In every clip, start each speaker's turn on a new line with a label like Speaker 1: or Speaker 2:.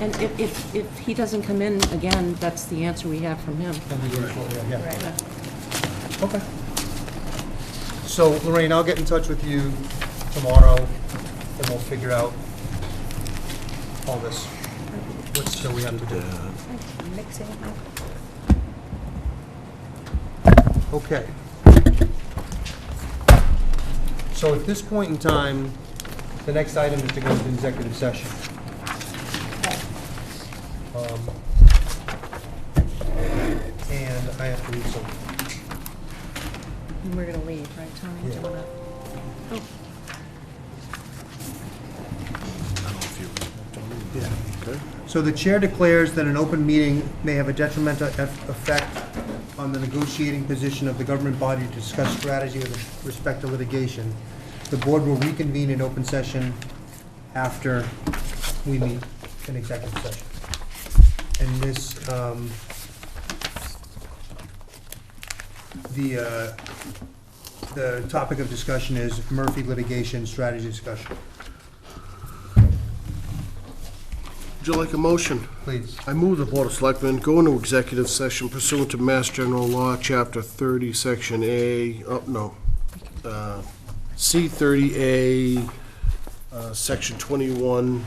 Speaker 1: And if, if, if he doesn't come in again, that's the answer we have from him.
Speaker 2: Then we do it shortly, yeah.
Speaker 1: Right.
Speaker 2: Okay. So Lorraine, I'll get in touch with you tomorrow, and we'll figure out all this, what still we have to do.
Speaker 3: Mixing.
Speaker 2: Okay. So at this point in time, the next item is to go into executive session. Um, And I have to read something.
Speaker 1: And we're gonna leave, right, Tony? Do you
Speaker 2: Yeah.
Speaker 1: wanna- Oh,
Speaker 2: So the chair declares that an open meeting may have a detrimental eff- effect on the negotiating position of the government body to discuss strategy with respect to litigation. The board will reconvene in open session after we meet in executive session. And this, um, the, uh, the topic of discussion is Murphy litigation strategy discussion.
Speaker 4: Would you like a motion?
Speaker 2: Please.
Speaker 4: I move the Board of Selectmen go into executive session pursuant to Mass General Law, Chapter 30, Section A, oh, no, uh, C 30A, uh, Section 21,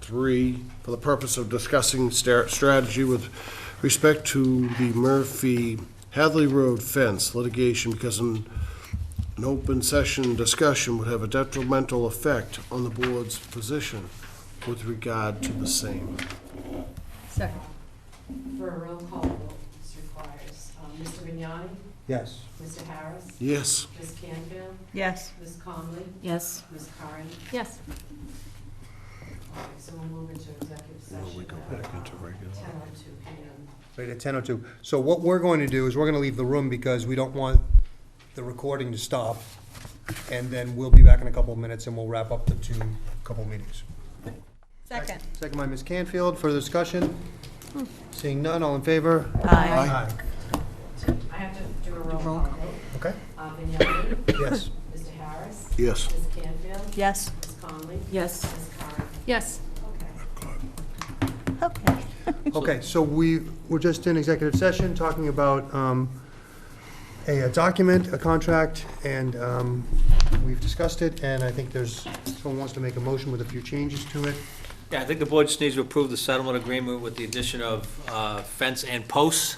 Speaker 4: 3, for the purpose of discussing star- strategy with respect to the Murphy Hadley Road fence litigation because an an open session discussion would have a detrimental effect on the board's position with regard to the same.
Speaker 3: Second.
Speaker 5: For a roll call vote, this requires um, Mr. Vignani,
Speaker 2: Yes.
Speaker 5: Mr. Harris,
Speaker 4: Yes.
Speaker 5: Ms. Canfield,
Speaker 3: Yes.
Speaker 5: Ms. Conley,
Speaker 1: Yes.
Speaker 5: Ms. Curran.
Speaker 1: Yes.
Speaker 5: All right, so we'll move into executive session. We go back into regular. Ten oh two P M.
Speaker 2: Right, at ten oh two. So what we're going to do is we're gonna leave the room because we don't want the recording to stop. And then we'll be back in a couple of minutes and we'll wrap up the two, couple of meetings.
Speaker 3: Second.
Speaker 2: Second by Ms. Canfield, further discussion? Seeing none, all in favor?
Speaker 3: Aye.
Speaker 5: I have to do a roll call vote.
Speaker 2: Okay,
Speaker 5: Uh, Vignani,
Speaker 2: yes.
Speaker 5: Mr. Harris,
Speaker 4: Yes.
Speaker 5: Ms. Canfield,
Speaker 3: Yes.
Speaker 5: Ms. Conley,
Speaker 1: Yes.
Speaker 5: Ms. Curran.
Speaker 1: Yes.
Speaker 5: Okay.
Speaker 3: Okay.
Speaker 2: Okay, so we, we're just in executive session, talking about, um, a a document, a contract, and, um, we've discussed it, and I think there's, someone wants to make a motion with a few changes to it.
Speaker 6: Yeah, I think the board just needs to approve the settlement agreement with the addition of uh, fence and posts,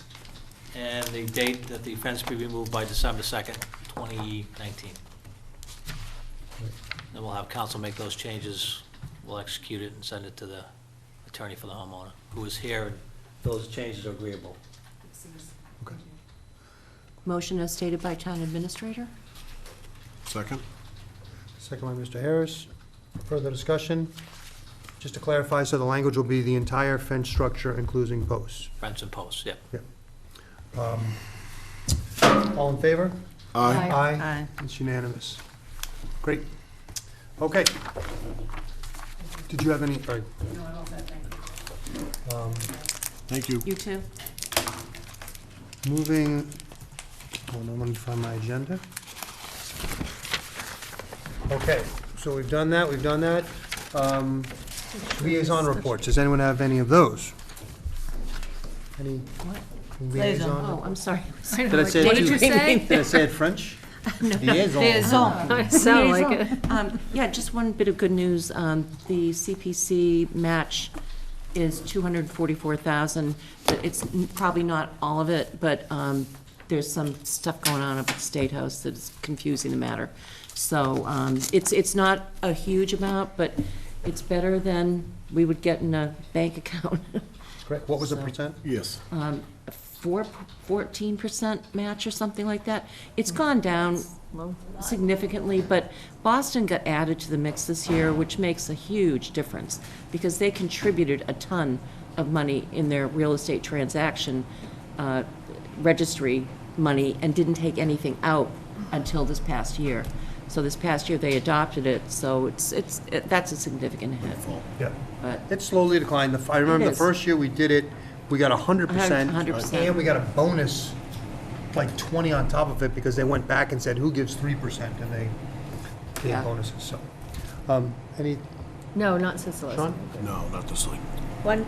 Speaker 6: and the date that the fence be removed by December 2nd, 2019. Then we'll have council make those changes, we'll execute it and send it to the attorney for the homeowner, who is here, and those changes are agreeable.
Speaker 1: Motion as stated by town administrator?
Speaker 4: Second?
Speaker 2: Second by Mr. Harris. Further discussion? Just to clarify, so the language will be the entire fence structure, including posts.
Speaker 6: Fence and posts, yeah.
Speaker 2: All in favor?
Speaker 1: Aye.
Speaker 3: Aye.
Speaker 2: It's unanimous. Great. Okay. Did you have any, all right. Um,
Speaker 4: Thank you.
Speaker 1: You too?
Speaker 2: Moving, hold on, let me find my agenda. Okay, so we've done that, we've done that. Um, Liaison reports, does anyone have any of those? Any
Speaker 1: What?
Speaker 2: liaison?
Speaker 1: Oh, I'm sorry.
Speaker 2: Did I say it
Speaker 1: What did
Speaker 2: too-
Speaker 1: you say?
Speaker 2: Did I say it French? Liaison.
Speaker 1: Sound like it. Um, Yeah, just one bit of good news. Um, The CPC match is 244,000. But It's n- probably not all of it, but um, there's some stuff going on up at the State House that is confusing the matter. So um, it's, it's not a huge amount, but it's better than we would get in a bank account.
Speaker 2: Correct, what was the
Speaker 1: So-
Speaker 2: percent?
Speaker 4: Yes.
Speaker 1: Four, 14% match or something like that. It's gone down significantly, but Boston got added to the mix this year, which makes a huge difference, because they contributed a ton of money in their real estate transaction uh, registry money and didn't take anything out until this past year. So this past year, they adopted it, so it's, it's, it- that's a significant hit,
Speaker 2: Yeah.
Speaker 1: but
Speaker 2: It slowly declined. The- I remember
Speaker 1: It
Speaker 2: the
Speaker 1: is.
Speaker 2: first year we did it, we got a hundred percent.
Speaker 1: A hundred percent.
Speaker 2: And we got a bonus, like twenty on top of it, because they went back and said, who gives three percent? And they gave
Speaker 1: Yeah.
Speaker 2: bonuses, so. Um, any,
Speaker 7: No, not since the last.
Speaker 2: Sean?
Speaker 4: No, not this link.
Speaker 3: One